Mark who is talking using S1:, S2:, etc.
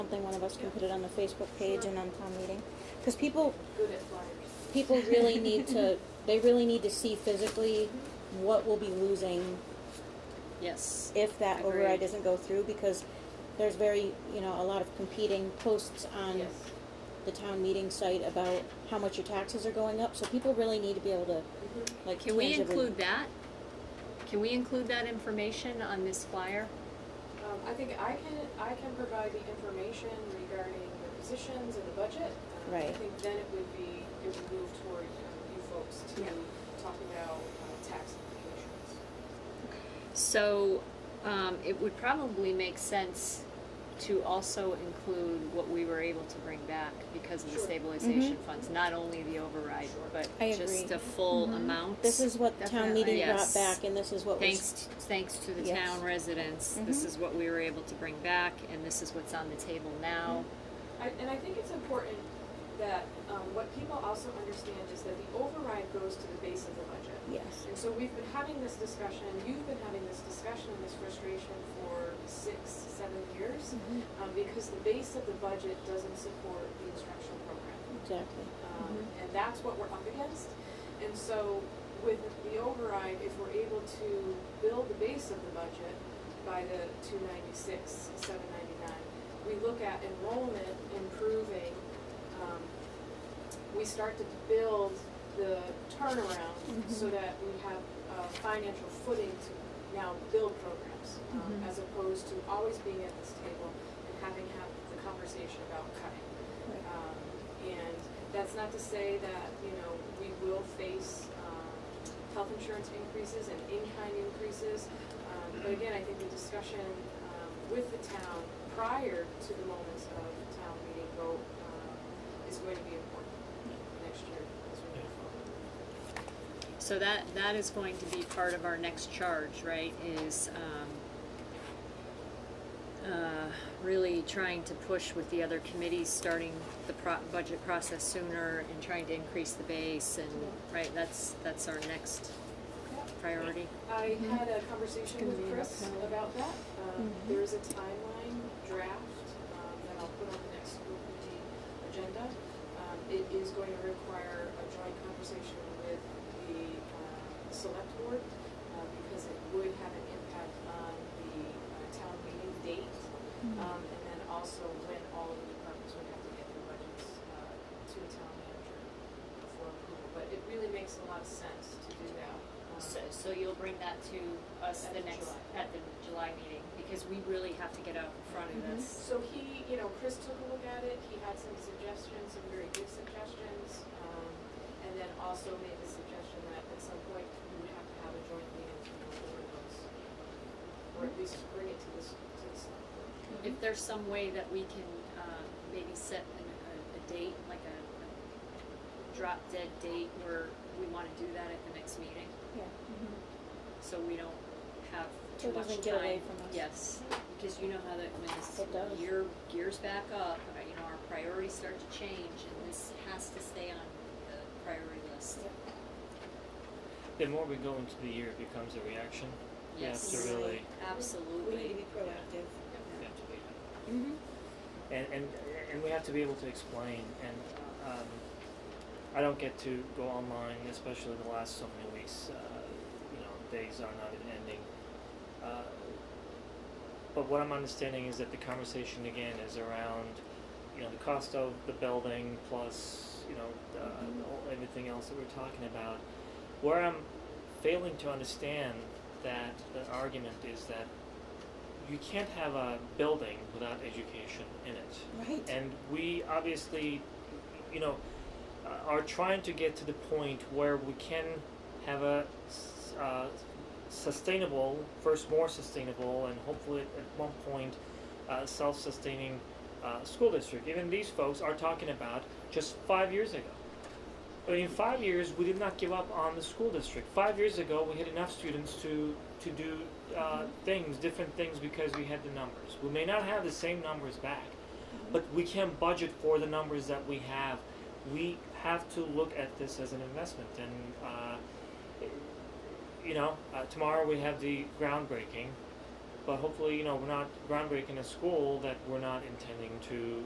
S1: something one of us can put it on the Facebook page and on town meeting, because people, people really need to, they really need to see physically what we'll be losing
S2: Yes.
S1: if that
S2: Agreed.
S1: override doesn't go through, because there's very, you know, a lot of competing posts
S2: Um,
S1: on the town meeting site about how much your taxes are going up, so people really need to be able to,
S3: Mm-hmm.
S1: like,
S2: Can we
S1: tangibly-
S2: include that? Can we include that information on this flyer?
S3: Um, I think I can, I can provide the information regarding the positions and the budget. Um,
S1: Right.
S3: I think then it would be, it would move toward um, you folks to talk about uh, tax implications.
S2: So, um, it would probably make sense to also include what we were able to bring back because of the
S3: Sure.
S2: stabilization funds, not only the override, but
S1: Mm-hmm. I
S2: just
S1: agree. Mm-hmm.
S2: the full amount.
S1: This is what the town meeting
S2: Definitely.
S1: brought
S2: Yes.
S1: back, and this is what was
S2: Thanks, thanks to the
S1: Yes. Mm-hmm.
S2: town residents, this is what we were able to bring back and this is what's on the table now.
S3: I, and I think it's important that, um, what people also understand is that the override goes to the base of the budget.
S1: Yes.
S3: And so we've been having this discussion, you've been having this discussion and this frustration for six, seven years, um, because the base of the budget doesn't support the instructional program.
S1: Exactly.
S3: Um, and that's what we're up against. And so with the override, if we're able to build the base of the budget by the two ninety-six, seven ninety-nine, we look at enrollment improving, um, we start to build the turnaround so that we have, uh, financial footing to now build programs, um, as opposed to always being at this table and having had the conversation about cutting. Um, and that's not to say that, you know, we will face, um, health insurance increases and in-kind increases. Um, but again, I think the discussion, um, with the town prior to the moments of the town meeting vote, um, is going to be important next year as we move forward.
S2: So that, that is going to be part of our next charge, right, is, um, uh, really trying to push with the other committees, starting the pro- budget process sooner and trying to increase the base and, right, that's, that's our next priority.
S3: I had a conversation
S2: Gonna be
S3: with
S2: an
S3: Chris
S2: uphill.
S3: about that. Um, There is a timeline draft um, that I'll put on the next school committee agenda. Um, It is going to require a joint conversation with the uh, select board uh, because it would have an impact on the uh, town meeting date. um, And then also when all of the departments would have to get their budgets uh, to the town manager for approval. But it really makes a lot of sense to do that. um,
S2: So, so you'll bring that to us
S3: At
S2: the
S3: the
S2: next,
S3: July.
S2: at the July meeting, because we really have to get out in front of this.
S3: So he, you know, Chris took a look at it, he had some suggestions, some very good suggestions, um, and then also made the suggestion that at some point we would have to have a joint meeting to go over those. Or at least bring it to this, to this.
S2: If there's some way that we can, um, maybe set an, a, a date, like a, a drop dead date where we wanna do that at the next meeting,
S1: Yeah.
S2: so we don't have
S1: So
S2: too
S1: it
S2: much time.
S1: doesn't get away from us.
S2: Yes, because you know how that, when
S1: It does.
S2: this year gears back up, uh, you know, our priorities start to change, and this has to stay on the priority list.
S4: The more we go into the year, it becomes a reaction. We have
S2: Yes,
S4: to really,
S2: absolutely.
S1: proactive.
S4: we have to be-
S1: Mm-hmm.
S4: and, and, and we have to be able to explain, and, um, I don't get to go online, especially the last so many weeks, uh, you know, days are not even ending. Uh, But what I'm understanding is that the conversation again is around, you know, the cost of the building plus, you know, uh, all- everything else that we're talking about. Where I'm failing to understand that the argument is that you can't have a building without education in it.
S1: Right.
S4: And we obviously, you know, uh, are trying to get to the point where we can have a s- uh, sustainable, first more sustainable, and hopefully at one point uh, self sustaining uh, school district. Even these folks are talking about just five years ago. I mean, in five years, we did not give up on the school district. Five years ago, we had enough students to, to do uh, things, different things, because we had the numbers. We may not have the same numbers back, but we can budget for the numbers that we have. We have to look at this as an investment, and uh, you know, uh, tomorrow we have the groundbreaking. but hopefully, you know, we're not groundbreaking a school that we're not intending to